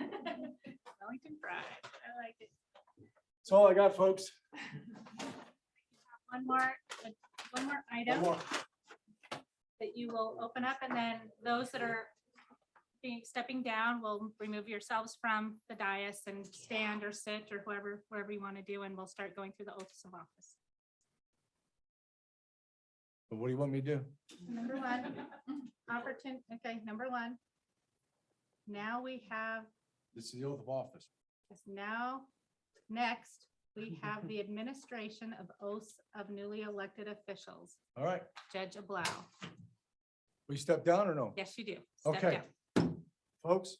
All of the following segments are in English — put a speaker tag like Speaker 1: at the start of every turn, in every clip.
Speaker 1: Wellington Pride, I like it.
Speaker 2: That's all I got, folks.
Speaker 1: One more, one more
Speaker 2: One
Speaker 1: item
Speaker 2: more.
Speaker 1: that you will open up and then those that are being, stepping down will remove yourselves from the dais and stand or sit or whoever, wherever you want to do, and we'll start going through the oaths of office.
Speaker 2: What do you want me to do?
Speaker 1: Number one, opportun, okay, number one. Now we have,
Speaker 2: This is the oath of office.
Speaker 1: now, next, we have the administration of oaths of newly elected officials.
Speaker 2: All right.
Speaker 1: Judge Ablow,
Speaker 2: Will you step down or no?
Speaker 1: yes, you do. Step
Speaker 2: Okay.
Speaker 1: down.
Speaker 2: Folks?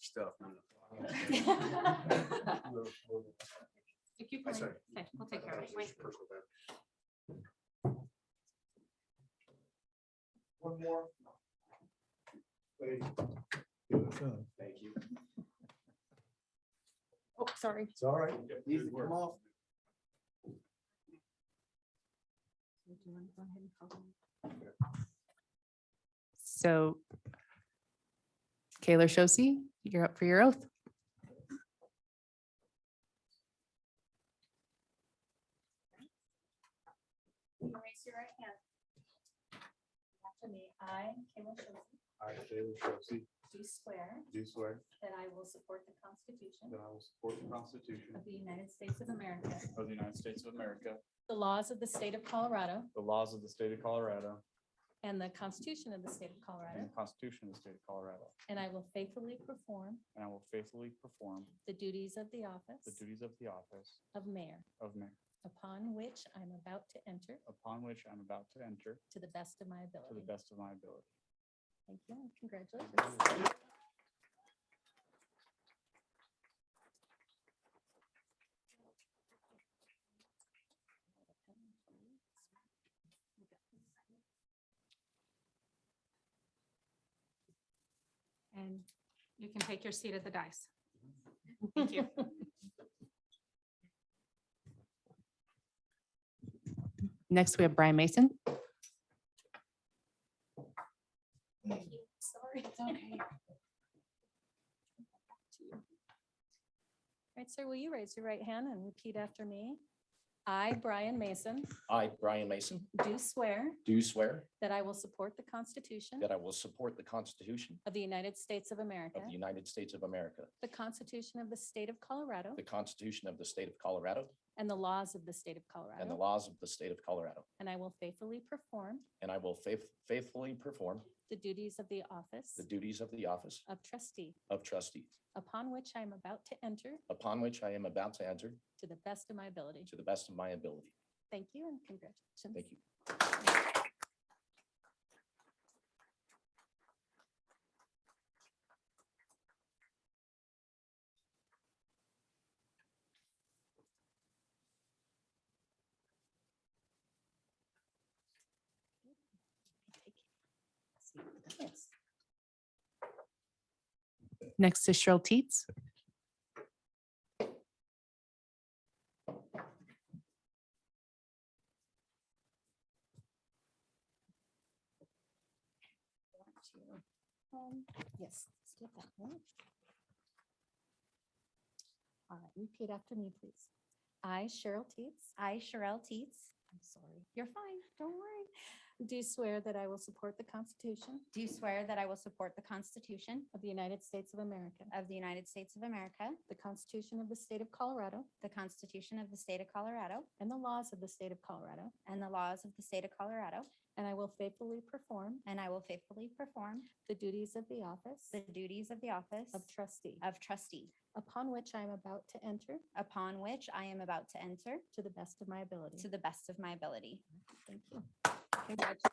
Speaker 3: Stuff.
Speaker 1: If you
Speaker 3: I
Speaker 1: can,
Speaker 3: sorry.
Speaker 1: okay, we'll take care of it. Wait.
Speaker 3: One more. Wait,
Speaker 2: It's
Speaker 3: Thank you.
Speaker 4: Oh, sorry.
Speaker 2: all right.
Speaker 3: Needs to come off.
Speaker 4: So Kayla Shosse, you're up for your oath.
Speaker 1: Raise your right hand. After me, I, Kayla Shosse,
Speaker 3: I, Taylor Shepsey,
Speaker 1: do swear
Speaker 3: do swear
Speaker 1: that I will support the Constitution
Speaker 3: that I will support the Constitution
Speaker 1: of the United States of America,
Speaker 5: of the United States of America,
Speaker 6: The laws of the state of Colorado
Speaker 5: the laws of the state of Colorado,
Speaker 6: and the Constitution of the state of
Speaker 5: and
Speaker 6: Colorado,
Speaker 5: the Constitution of the state of Colorado,
Speaker 6: and I will faithfully perform
Speaker 5: and I will faithfully perform
Speaker 6: the duties of the
Speaker 5: the
Speaker 6: office
Speaker 5: duties of the office
Speaker 6: of mayor,
Speaker 5: of mayor,
Speaker 6: upon which I'm about to enter
Speaker 5: upon which I'm about to enter
Speaker 6: to the best of my
Speaker 5: to the
Speaker 6: ability.
Speaker 5: best of my ability.
Speaker 6: Thank you and congratulations.
Speaker 1: and you can take your seat at the dais. Thank you.
Speaker 4: Next, we have Brian Mason.
Speaker 6: Sorry. Okay. Right, sir, will you raise your right hand and repeat after me? I, Brian Mason,
Speaker 7: I, Brian Mason,
Speaker 6: do swear
Speaker 7: do swear
Speaker 6: that I will support the Constitution
Speaker 7: that I will support the Constitution
Speaker 6: of the United States of America,
Speaker 7: of the United States of America,
Speaker 6: the Constitution of the State of Colorado,
Speaker 7: the Constitution of the State of Colorado,
Speaker 6: and the laws of the State of
Speaker 7: and the
Speaker 6: Colorado,
Speaker 7: laws of the State of Colorado,
Speaker 6: and I will faithfully perform
Speaker 7: and I will faith- faithfully perform
Speaker 6: the duties of the office
Speaker 7: the duties of the office
Speaker 6: of trustee,
Speaker 7: of trustee,
Speaker 6: upon which I am about to enter
Speaker 7: upon which I am about to enter
Speaker 6: to the best of my ability.
Speaker 7: to the best of my ability.
Speaker 6: Thank you and congratulations.
Speaker 7: Thank you.
Speaker 6: Yes.
Speaker 4: Next is Cheryl Teets.
Speaker 6: Um, Yes, let's do it that way. All right, repeat after me, please. I, Cheryl Teets. I, Cheryl Teets. I'm sorry. You're fine. Don't worry. Do swear that I will support the Constitution
Speaker 8: Do swear that I will support the Constitution
Speaker 6: of the United States of America,
Speaker 8: of the United States of America,
Speaker 6: the Constitution of the State of Colorado,
Speaker 8: the Constitution of the State of Colorado,
Speaker 6: and the laws of the State of Colorado,
Speaker 8: and the laws of the State of Colorado,
Speaker 6: and I will faithfully perform
Speaker 8: and I will faithfully perform
Speaker 6: the duties of the office
Speaker 8: the duties of the office
Speaker 6: of trustee,
Speaker 8: of trustee,
Speaker 6: upon which I am about to enter
Speaker 8: upon which I am about to enter
Speaker 6: to the best of my ability.
Speaker 8: to the best of my ability.
Speaker 6: Thank you. Congratulations.